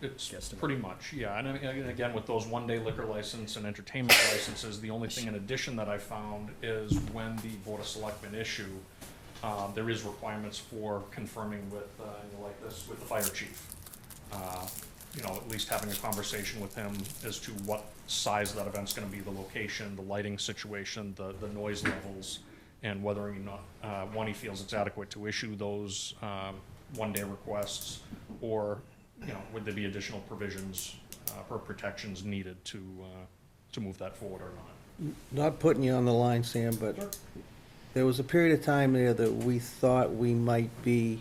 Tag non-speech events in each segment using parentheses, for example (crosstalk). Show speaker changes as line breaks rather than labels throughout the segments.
it's
Guesstimate.
pretty much, yeah, and I mean, and again, with those one-day liquor license and entertainment (coughs) licenses, the only thing in addition that I found is when the Board of Selectmen issue, um, there is requirements for confirming with, uh, you know, like this, with the fire chief. Uh, You know, at least having a conversation with him as to what size that event's gonna be, the location, the lighting situation, the, the noise levels, and whether or not, uh, one, he feels it's adequate to issue those, um, one-day requests, or, you know, would there be additional provisions, uh, or protections needed to, uh, to move that forward or not?
Not putting you on the line, Sam,
Sure.
but there was a period of time there that we thought we might be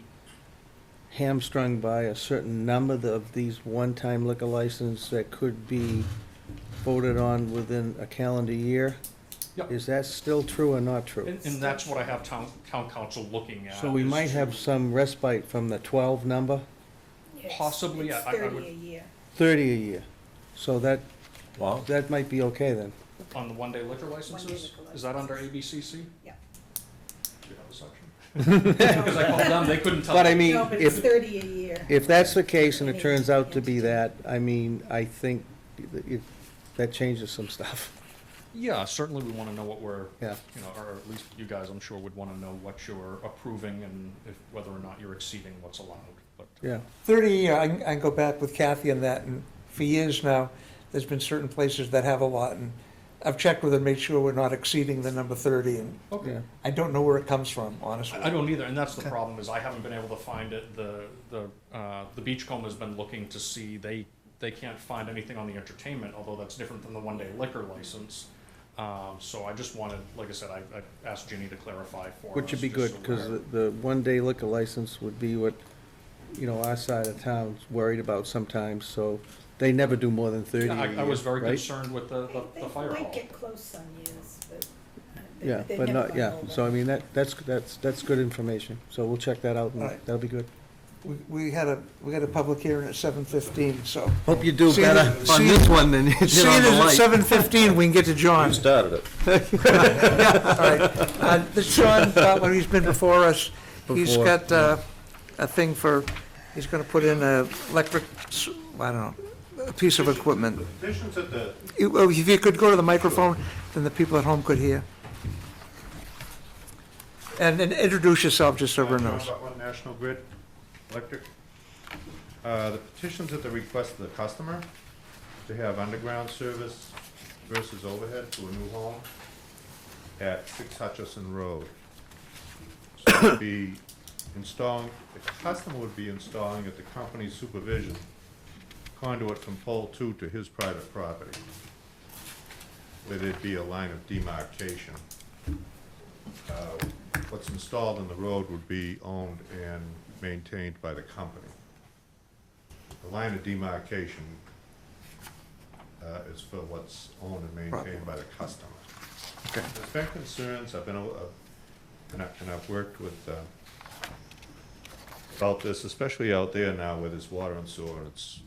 hamstrung by a certain number of these one-time liquor licenses that could be voted on within a calendar year.
Yep.
Is that still true or not true?
And, and that's what I have town, town council looking at.
So we
is
might have
to-
some respite from the twelve number,
Yes,
Possibly,
It's
I- I- I
thirty
would-
a year.
thirty a year. So that,
Wow.
that might be okay then.
On the one-day liquor licenses?
liquor
Is that under
licenses.
ABCC? Do (laughs)
Yeah.
you have a section? (laughs) Because I called them, they couldn't tell.
But I
me.
mean,
No, but it's
if,
thirty a year.
If that's the case and it turns out to be that, I mean, I think it, that changes some stuff.
Yeah, certainly we want to know what we're,
Yeah.
you know, or at least you guys, I'm sure, would want to know what you're approving and if, whether or not you're exceeding what's allowed, but.
Yeah.
30, year, I can, I can go back with Kathy on that, and for years now, there's been certain places that have a lot, and I've checked with her, made sure we're not exceeding the number 30, and
Yeah.
Okay.
I don't know where it comes from, honestly.
I I don't either, and that's the problem, is I haven't been able to find it, the, the, uh, the Beachcomber's been looking to see, they, they can't find anything on the entertainment, although that's different than the one-day liquor license. Um, so I just wanted, like I said, I, I asked Ginny to clarify for us.
Which would be
just
good,
so
because
we're-
the, the one-day liquor license would be what, you know, our side of town's worried about sometimes, so they never do more than thirty a
Yeah, I, I was
year,
very
right?
concerned with the, the, the fire
They might
hall.
get close some years, but. uh, they-
Yeah,
they've
but
never
not,
gone
yeah,
over.
so I mean, that, that's, that's, that's good information, so we'll check that out, and
All right.
that'll be good.
We, we had a, we had a public hearing at 7:15, so.
(laughs) Hope you do
See better
better
you- on
on
see this
this
you-
one than you did
See it
on the
as
light.
at 7:15, we can get to John.
You started it.
All right. Uh, this John, uh, when he's been before us, he's
Before,
got uh, a thing for, he's going to put in a electric, s- I don't know, a piece of equipment.
Petitions at the,
You- well, If you could go to the microphone, then the people at home could hear. And and introduce yourself, just so everyone
John
knows.
Butler, National Grid Electric. Uh, The petitions at the request of the customer to have underground service versus overhead to a new home at Six Hutchison Road. So it'd be installing, the customer would be installing at the company's supervision conduit from pole two to his private property. Where there'd be a line of demarcation what's installed in the road would be owned and maintained by the company. The line of demarcation uh, is for what's owned and maintained by the customer.
Okay.
There's been concerns, I've been, uh, and I- and I've worked with, uh, about this, especially out there now where there's water and sewer, it's,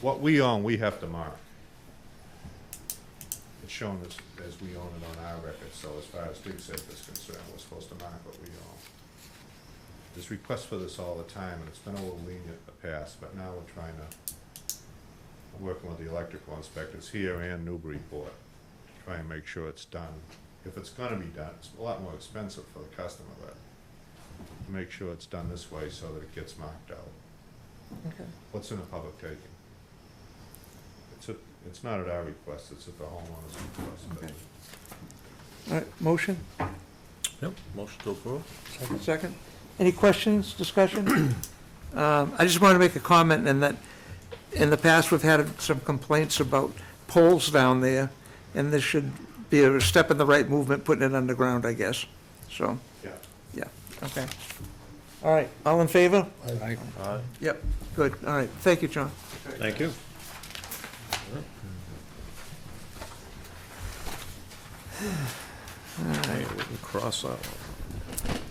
what we own, we have to mark it's shown as, as we own it on our record, so as far as Dig Safe is concerned, we're supposed to mark what we own. There's requests for this all the time, and it's been a little lenient in the past, but now we're trying to, I'm working with the electrical inspectors here and Newburyport, to try and make sure it's done. If it's gonna be done, it's a lot more expensive for the customer, but to make sure it's done this way so that it gets marked out. What's in a public taking? It's a, it's not at our request, it's at the homeowner's request, but
Okay. All right, motion,
Yep, motion to approve.
second. Any questions, discussion? (clears throat) Um, I just want to make a comment in that, in the past, we've had some complaints about poles down there, and this should be a step in the right movement, putting it underground, I guess. So,
yeah.
yeah, okay. All right, all in favor?
I-
Aye.
Yep, good, all right, thank you, John.
Thank you. Okay, we can cross out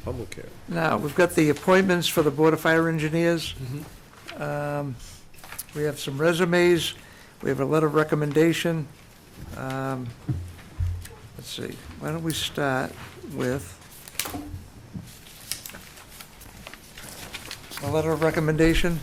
public hearing.
Now, we've got the appointments for the Board of Fire Engineers. Um, We have some resumes, we have a letter of recommendation. Um, Let's see, why don't we start with a letter of recommendation?